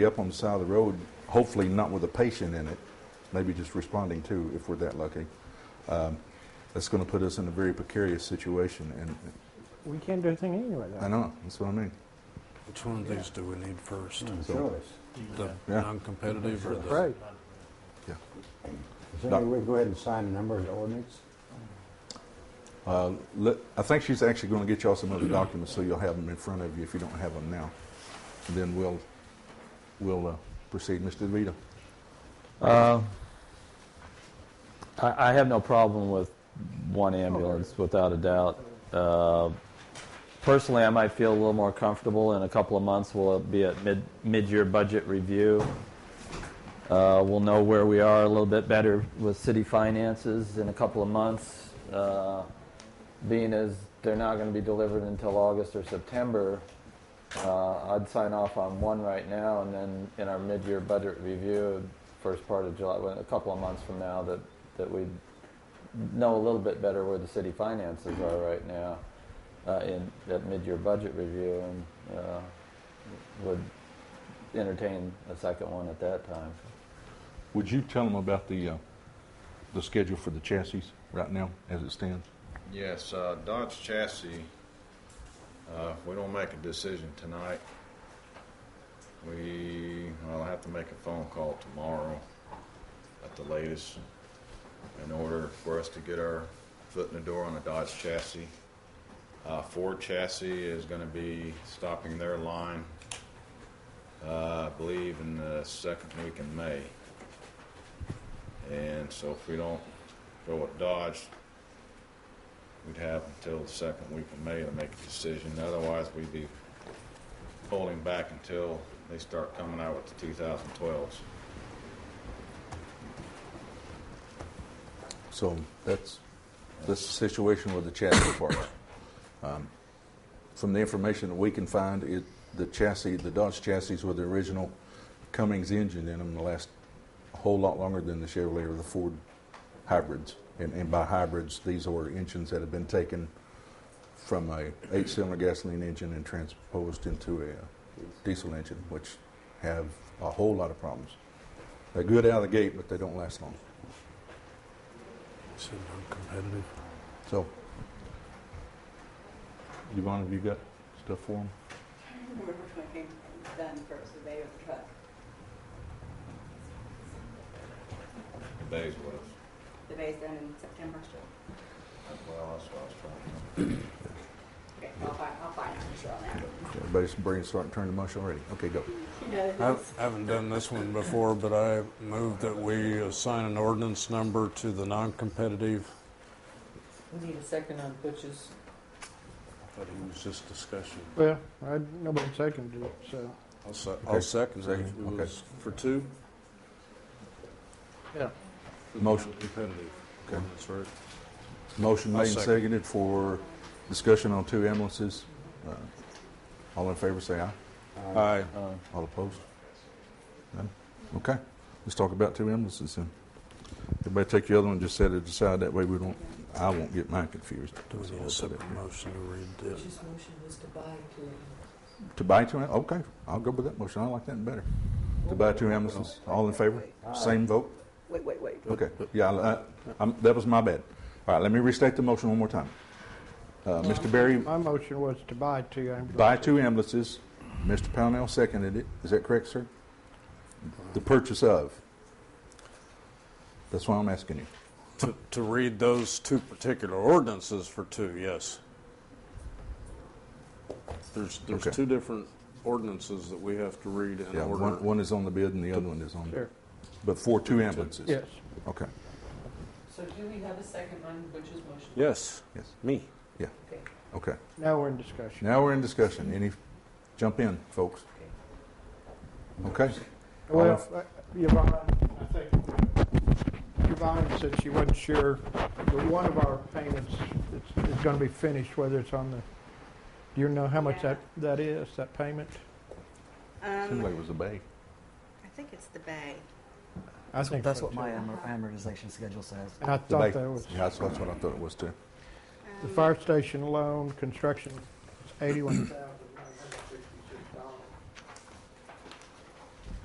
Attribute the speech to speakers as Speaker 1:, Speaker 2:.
Speaker 1: up on the side of the road, hopefully not with a patient in it, maybe just responding to, if we're that lucky. Um, That's going to put us in a very precarious situation, and
Speaker 2: We can't do anything anyway,
Speaker 1: I
Speaker 2: though.
Speaker 1: know, that's what I mean.
Speaker 3: Which one of these do we need first?
Speaker 1: So,
Speaker 4: Choice.
Speaker 3: The
Speaker 1: Yeah.
Speaker 3: non-competitive or the?
Speaker 2: Right.
Speaker 4: Is there any way we go ahead and sign the number of the ordinance?
Speaker 1: uh, let- I think she's actually going to get y'all some other documents, so you'll have them in front of you if you don't have them now. And then we'll, we'll uh, proceed. Mr. DeVito?
Speaker 5: Uh, I, I have no problem with one ambulance, without a doubt. Uh, personally, I might feel a little more comfortable in a couple of months. We'll be at mid mid-year budget review. Uh, we'll know where we are a little bit better with city finances in a couple of months. Uh, being as they're not going to be delivered until August or September, uh, I'd sign off on one right now, and then in our mid-year budget review, first part of July, well, a couple of months from now, that, that we'd know a little bit better where the city finances are right now uh, in that mid-year budget review, and uh, would entertain a second one at that time.
Speaker 1: Would you tell them about the, uh, the schedule for the chassis right now, as it stands?
Speaker 6: Yes, uh, Dodge chassis, uh, if we don't make a decision tonight, we, I'll have to make a phone call tomorrow at the latest in order for us to get our foot in the door on a Dodge chassis. Uh, Ford chassis is gonna be stopping their line, uh, I believe in the second week in May. And so if we don't go with Dodge, We'd have until the second week of May to make a decision, otherwise we'd be holding back until they start coming out with the 2012s.
Speaker 1: So that's, that's the situation with the chassis part. Um, From the information that we can find, it, the chassis, the Dodge chassis with the original Cummings engine in them last a whole lot longer than the Chevrolet or the Ford hybrids. And, and by hybrids, these are engines that have been taken from a eight-cylinder gasoline engine and transposed into a diesel engine, which have a whole lot of problems. They're good out of the gate, but they don't last long.
Speaker 3: So non-competitive.
Speaker 1: So, Yvonne, have you got stuff for him?
Speaker 7: We're looking done for a survey of the truck,
Speaker 6: The days was,
Speaker 7: the bay's done in September.
Speaker 6: well, that's what I was trying to.
Speaker 7: Okay, I'll find, I'll find it for sure on that.
Speaker 1: Everybody's brain's starting to turn to mush already. Okay, go.
Speaker 7: You know,
Speaker 3: I
Speaker 7: it's-
Speaker 3: haven't done this one before, but I move that we assign an ordinance number to the non-competitive.
Speaker 8: We need a second on Butch's.
Speaker 3: But it was just discussion.
Speaker 2: Well, I, nobody seconded it, so,
Speaker 3: I'll se- I'll second it.
Speaker 1: Second,
Speaker 3: It
Speaker 1: okay.
Speaker 3: was For two?
Speaker 2: yeah.
Speaker 1: Motion.
Speaker 3: Competitive.
Speaker 1: Okay.
Speaker 3: That's right.
Speaker 1: Motion
Speaker 3: I'll
Speaker 1: made and
Speaker 3: second.
Speaker 1: seconded for discussion on two ambulances. Uh, All in favor, say aye.
Speaker 3: Aye.
Speaker 5: Uh,
Speaker 1: All opposed? None? Okay, let's talk about two ambulances then. Everybody take the other one, just set it aside, that way we don't, I won't get mine confused.
Speaker 3: Do we need a separate motion to read this?
Speaker 8: Butch's motion was to buy two.
Speaker 1: To buy two, am- okay, I'll go with that motion, I like that better. To buy two ambulances, all in favor? Same vote?
Speaker 7: Wait, wait, wait.
Speaker 1: Okay, yeah, I- I- I'm- that was my bad. All right, let me restate the motion one more time. Uh, Mr. Berry,
Speaker 2: My motion was to buy two ambulances.
Speaker 1: buy two ambulances. Mr. Pownell seconded it. Is that correct, sir? The purchase of. That's why I'm asking you.
Speaker 3: To- To read those two particular ordinances for two, yes. There's, there's
Speaker 1: Okay.
Speaker 3: two different ordinances that we have to read in
Speaker 1: Yeah,
Speaker 3: order.
Speaker 1: one, one is on the bid and the other one is on,
Speaker 2: Sure,
Speaker 1: but for two ambulances?
Speaker 2: yes.
Speaker 1: Okay,
Speaker 8: So do we have a second on Butch's motion?
Speaker 3: Yes,
Speaker 1: yes,
Speaker 3: me.
Speaker 8: Okay.
Speaker 1: okay.
Speaker 2: Now we're in discussion.
Speaker 1: Now we're in discussion. Any, jump in, folks. Okay?
Speaker 2: Well, uh, Yvonne, I think, Yvonne said she wasn't sure, but one of our payments is, is gonna be finished, whether it's on the, do you know how much that, that is, that payment?
Speaker 1: Seemed like
Speaker 7: Um,
Speaker 1: it was a bay.
Speaker 7: I think it's the bay.
Speaker 2: I think
Speaker 9: That's
Speaker 2: so,
Speaker 9: what my
Speaker 2: too.
Speaker 9: amor- amortization schedule says.
Speaker 2: And I
Speaker 1: The bay.
Speaker 2: thought that was,
Speaker 1: Yeah, that's, that's what I thought it was too.
Speaker 2: the
Speaker 7: Um,
Speaker 2: fire station loan, construction, eighty-one thousand.